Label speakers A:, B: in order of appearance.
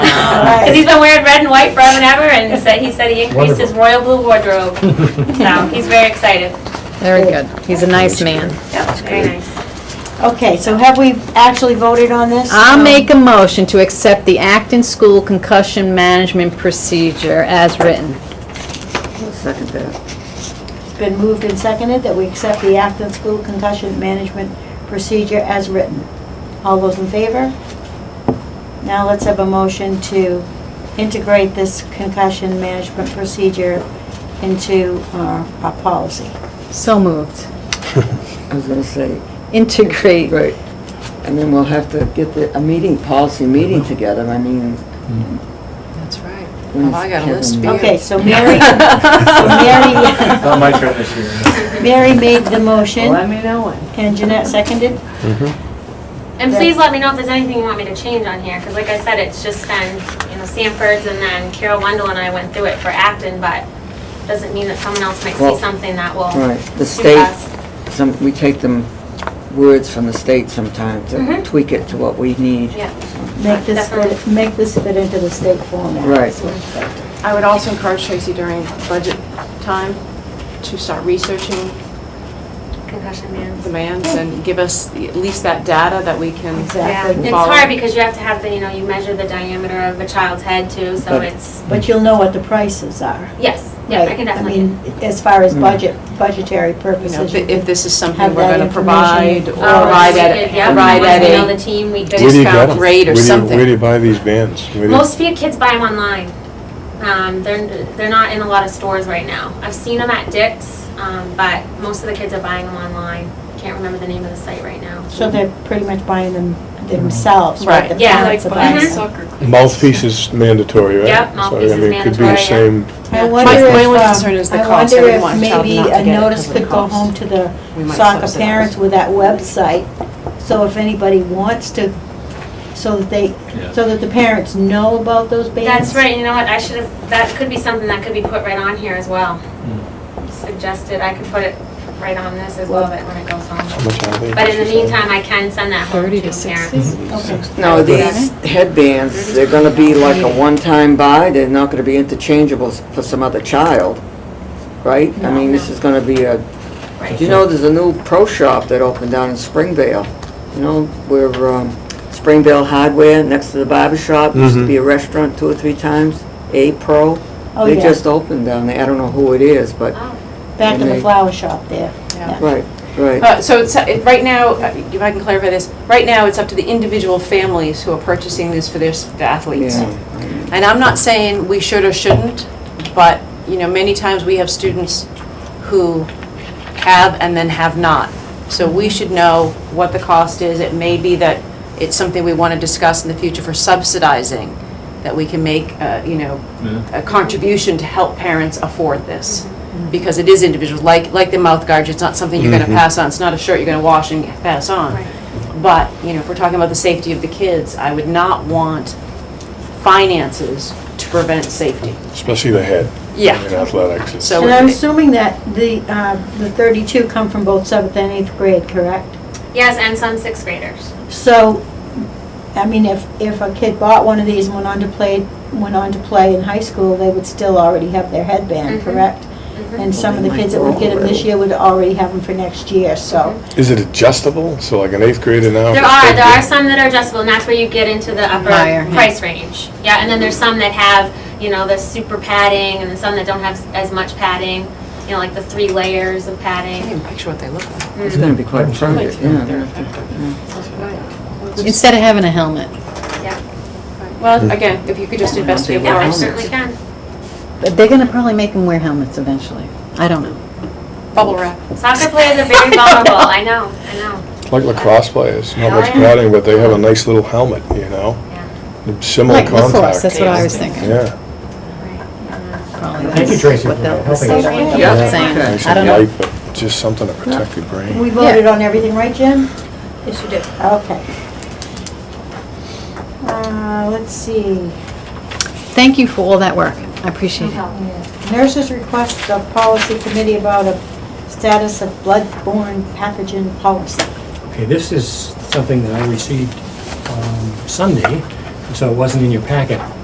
A: Because he's been wearing red and white forever and ever, and said, he said he increased his royal blue wardrobe. So he's very excited.
B: Very good. He's a nice man.
A: Yep, very nice.
C: Okay, so have we actually voted on this? Um,
B: I'll make a motion to accept the Acton School Concussion Management Procedure as written.
D: Second that.
C: It's been moved and seconded that we accept the Acton School Concussion Management Procedure as written. All those in favor? Now let's have a motion to integrate this concussion management procedure into our, our policy.
B: So moved.
D: I was gonna say,
B: Integrate.
D: great. And then we'll have to get the, a meeting, policy meeting together, I mean.
E: That's right.
D: when
E: Well, I got a list for you.
C: Okay, so Mary, Mary,
F: Not my turn this year.
C: Mary made the motion
E: Let me know when.
C: and Jeanette seconded.
A: And please let me know if there's anything you want me to change on here, because like I said, it's just been, you know, Sanford's and then Carol Wendell and I went through it for Acton, but doesn't mean that someone else might see
D: Well,
A: something that will
D: Right, the
A: suit
D: state,
A: us.
D: some, we take them words from the state sometimes
E: Mm-hmm.
D: and tweak it to what we need.
A: Yeah.
C: Make this, fit-
A: Definitely.
C: make this fit into the state format.
D: Right.
G: I would also encourage Tracy during budget time to start researching
A: Concussion
G: the
A: man.
G: demands and give us the- at least that data that we can.
A: Yeah,
C: Exactly.
A: it's
G: Follow.
A: hard because you have to have the, you know, you measure the diameter of a child's head too, so
D: But-
A: it's,
C: But you'll know what the prices are.
A: yes, yeah, I
C: Right.
A: can definitely.
C: mean, as far as
D: Mm.
C: budget, budgetary
G: You know,
C: purposes.
G: if if this is something
C: Have
G: we're
C: that
G: going to provide or
C: information.
A: Oh,
G: provide
A: we
G: at,
A: did, yeah.
G: provide
A: Once
G: at
A: we know the
G: a
A: team, we
H: Where do you get
G: discount rate or
H: 'em? Where do you- Where do
G: something.
H: you buy these bands? Where do you-
A: Most of your kids buy them online. Um, they're, they're not in a lot of stores right now. I've seen them at Dick's, um, but most of the kids are buying them online. Can't remember the name of the site right now.
C: So they're pretty much buying them themselves, right?
G: Right. Mm-hmm.
C: The
A: Yeah.
C: parents are buying
A: Mhm.
C: them.
H: Mouthpiece is mandatory, right?
A: Yep, mouthpiece
H: So, I
A: is
H: mean, it could be the
A: mandatory, yeah.
H: same.
C: I
G: My-
C: wonder
G: my
C: if,
G: only
C: um,
G: concern is
C: I
G: the cost. I
C: wonder
G: wouldn't
C: if
G: want a child
C: maybe
G: not to
C: a
G: get it
C: notice
G: 'cause of the
C: could go
G: cost.
C: home to the
G: We might
C: soccer
G: subsidize.
C: parents with that website. So if anybody wants to, so that they, so that the parents know about those bands.
A: That's right, you know what, I should have, that could be something that could be put right on here as well.
H: Hmm.
A: Suggested, I could put it right on this as well, but when it goes
H: How
A: home.
H: much are they?
A: But in the meantime, I can send that home
B: 30
A: to
B: to
A: parents.
B: 60?
F: Mm-hmm.
C: Okay.
D: No, these headbands, they're gonna be like a one-time buy, they're not gonna be interchangeable s- for some other child, right? I mean, this is gonna be a,
A: Right.
D: you know, there's a new pro shop that opened down in Springvale, you know, where, um, Springvale Hardware, next to the barber shop, used to
H: Mhm.
D: be a restaurant two or three times, A Pro.
C: Oh,
D: They
C: yeah.
D: just opened down there, I don't know who it is, but,
A: Oh,
C: Back in the
D: They-
C: flower shop there.
G: Yeah.
D: right, right.
G: Uh, So it's, it- right now, uh, if I can clarify this, right now, it's up to the individual families who are purchasing this for their s- the athletes.
D: Yeah.
G: And I'm not saying we should or shouldn't, but, you know, many times we have students who have and then have not. So we should know what the cost is. It may be that it's something we want to discuss in the future for subsidizing, that we can make, uh, you know, a contribution to help parents afford this. Because it is individual, like, like the mouth guards, it's not something you're going to
H: Mhm.
G: pass on. It's not a shirt you're going to wash and pass on.
A: right.
G: But, you know, if we're talking about the safety of the kids, I would not want finances to prevent safety.
H: Especially the head.
G: Yeah.
H: In athletics. it's-
G: So-
C: And I'm assuming that the, uh, the 32 come from both seventh and eighth grade, correct?
A: Yes, and some sixth graders.
C: So, I mean, if, if a kid bought one of these and went on to play, went on to play in high school, they would still already have their headband,
A: Mhm.
C: correct?
A: Mhm.
C: And some of the kids that would get them this year would already have them for next year, so.
H: Is it adjustable? So like an eighth grader now?
A: There
H: if
A: are,
H: they-
A: there are some that are adjustable, and that's where you get into the upper
B: Higher, yeah.
A: price range. Yeah, and then there's some that have, you know, the super padding, and then some that don't have s- as much padding, you know, like the three layers of
G: I
A: padding. Mm.
G: can't even picture what they look like.
D: It's gonna be quite private, yeah. they're gonna have to-
B: Instead of having a helmet.
G: Well, again, if you could just investigate
A: Yeah,
G: more.
A: I
D: Wow.
A: certainly can.
B: But They're gonna probably make them wear helmets eventually. I don't know.
G: Bubble wrap.
A: Soccer players are very vulnerable, I know, I know.
H: Like lacrosse players, not
A: Oh,
H: much
A: yeah.
H: padding, but they have a nice little helmet, you know?
A: Yeah.
H: Similar
B: Like lacrosse,
H: contact.
B: that's what I was thinking.
H: Yeah.
B: Probably
F: Thank you,
B: that's
F: Tracy,
B: what
F: for
B: they'll-
F: helping
B: that's
F: us.
B: what they'll
D: Yeah.
B: be saying.
D: Okay.
H: Nice
B: I don't
H: and
B: know.
H: light, but just something to protect your brain.
C: We voted on everything, right, Jim?
A: Yes, you do.
C: Okay. Uh, let's see.
B: Thank you for all that work. I appreciate it.
A: Help.
C: Nurses request the policy committee about a status of bloodborne pathogen policy.
F: Okay, this is something that I received um, Sunday, so it wasn't in your packet.